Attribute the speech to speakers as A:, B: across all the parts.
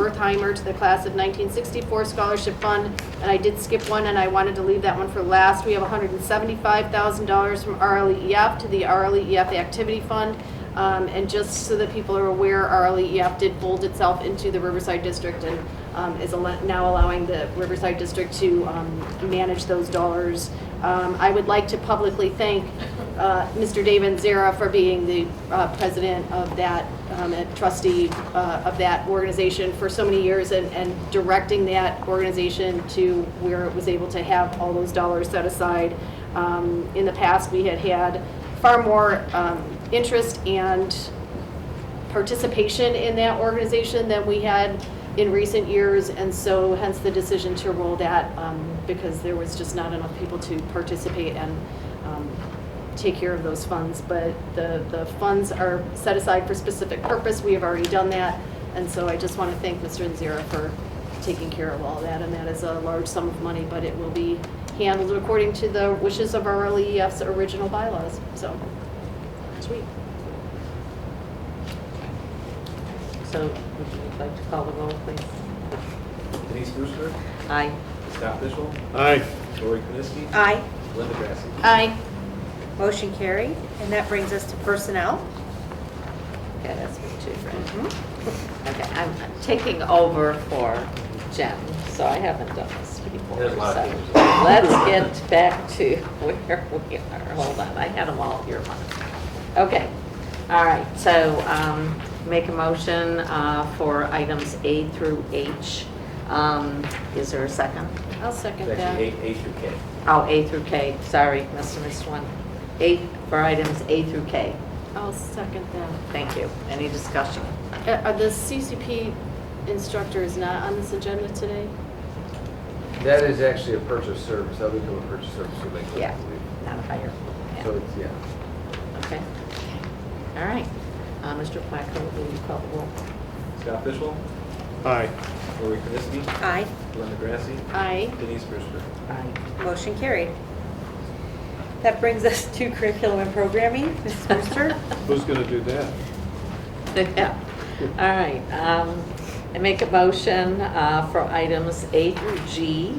A: Wertheimer to the Class of 1964 Scholarship Fund, and I did skip one, and I wanted to leave that one for last. We have $175,000 from RLEF to the RLEF Activity Fund. Um, And just so that people are aware, RLEF did fold itself into the Riverside District and um, is al- now allowing the Riverside District to um, manage those dollars. Um, I would like to publicly thank uh, Mr. David Zera for being the uh, president of that, um, and trustee uh, of that organization for so many years and- and directing that organization to where it was able to have all those dollars set aside. Um, In the past, we had had far more um, interest and participation in that organization than we had in recent years, and so hence the decision to roll that, um, because there was just not enough people to participate and um, take care of those funds. But the, the funds are set aside for specific purpose, we have already done that, and so I just want to thank Mr. Nzera for taking care of all that, and that is a large sum of money, but it will be handled according to the wishes of our LEF's original bylaws, so, sweet.
B: So would you like to call the roll, please?
C: Denise Brewster,
B: Aye.
C: Scott Fishel,
D: Aye.
C: Lori Kniske,
B: Uh,
E: Aye.
C: Linda Grassi.
A: Aye.
E: Motion carried. And that brings us to personnel.
B: Okay, that's me too, right? Okay, I'm I'm taking over for Jen, so I haven't done this before.
C: There's a lot of
B: so
C: things.
B: Let's get back to where we are. Hold on, I had them all here. Okay, all right, so um, make a motion uh, for items A through H. Um, Is there a second?
A: I'll second
C: It's
A: that.
C: actually A, A through K.
B: Oh, A through K, sorry, must have missed one. A, for items A through K.
A: I'll second that.
B: Thank you. Any discussion?
A: Uh, Are the CCP instructor is not on this agenda today?
F: That is actually a purchase service, that would go a purchase service would make it,
B: Yeah.
F: I believe.
B: Not higher.
F: So it's, yeah.
B: Okay. All right. Uh, Mr. Placco, will you call the roll?
C: Scott Fishel,
D: Aye.
C: Lori Kniske,
E: Aye.
C: Linda Grassi,
A: Aye.
C: Denise Brewster.
B: Aye.
E: Motion carried. That brings us to curriculum and programming. Mrs. Brewster?
D: Who's going to do that?
B: Yeah. All right. Um, I make a motion uh, for items A through G.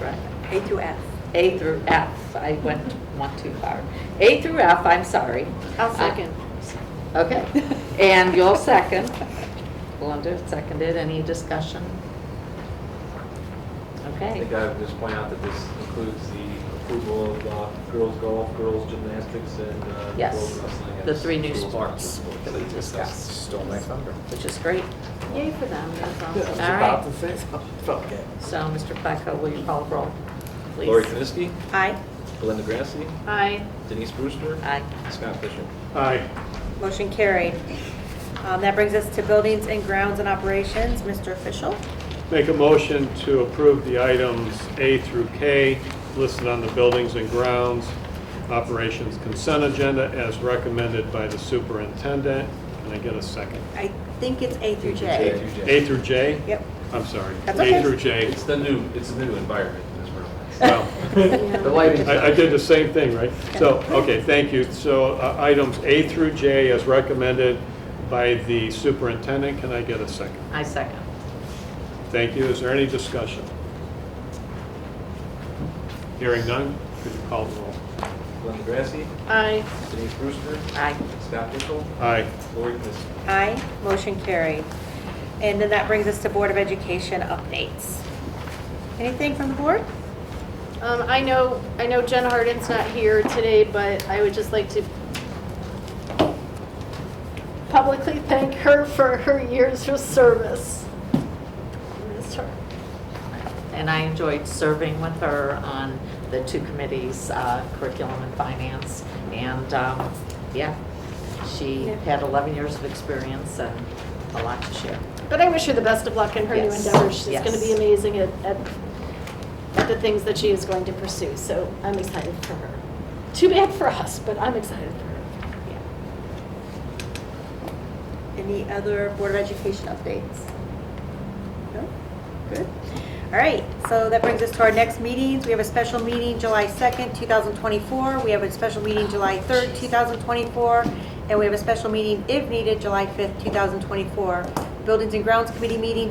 B: Right.
E: A through F.
B: A through F. I went one too far. A through F, I'm sorry.
A: I'll second.
B: Okay. And you'll second. Linda seconded. Any discussion?
C: I
B: Okay.
C: think I would just point out that this includes the approval of uh, girls golf, girls gymnastics, and uh,
B: Yes.
C: girls wrestling.
B: The
C: as
B: three new
C: girls
B: sports
C: sports
B: that we
C: they
B: discussed.
F: Stole my thunder.
B: Which is great.
A: Yay for them, that's
B: All
A: awesome.
B: right.
F: to say something. Okay.
B: So, Mr. Placco, will you call the roll, please?
C: Lori Kniske,
E: Aye.
C: Linda Grassi,
A: Aye.
C: Denise Brewster,
B: Aye.
C: Scott Fishel.
D: Aye.
E: Motion carried. Um, That brings us to buildings and grounds and operations. Mr. Official?
D: Make a motion to approve the items A through K listed on the buildings and grounds operations consent agenda as recommended by the superintendent. Can I get a second?
E: I think it's A through
C: A
E: J.
C: through J.
D: A through J?
E: Yep.
D: I'm sorry.
E: That's okay.
D: A through J.
C: It's the new, it's the new environment in this room.
D: Well,
F: The lighting.
D: I I did the same thing, right? So, okay, thank you. So uh, items A through J as recommended by the superintendent. Can I get a second?
B: I second.
D: Thank you. Is there any discussion? Hearing none, could you call the roll?
C: Linda Grassi,
A: Aye.
C: Denise Brewster,
B: Aye.
C: Scott Fishel,
D: Aye.
C: Lori Kniske.
E: Aye. Motion carried. And then that brings us to Board of Education updates. Anything from the board?
A: Um, I know, I know Jen Harden's not here today, but I would just like to publicly thank her for her years of service. Missed her.
B: And I enjoyed serving with her on the two committees, uh, curriculum and finance. And, um, yeah, she had 11 years of experience and a lot to share.
A: But I wish her the best of luck in her new
B: Yes.
A: endeavors. She's going to
B: Yes.
A: be amazing at, at, at the things that she is going to pursue, so I'm excited for her. Too bad for us, but I'm excited for her.
B: Yeah.
E: Any other Board of Education updates? No? Good. All right, so that brings us to our next meetings. We have a special meeting July 2nd, 2024. We have a special meeting July 3rd, 2024. And we have a special meeting, if needed, July 5th, 2024. Buildings and Grounds Committee meeting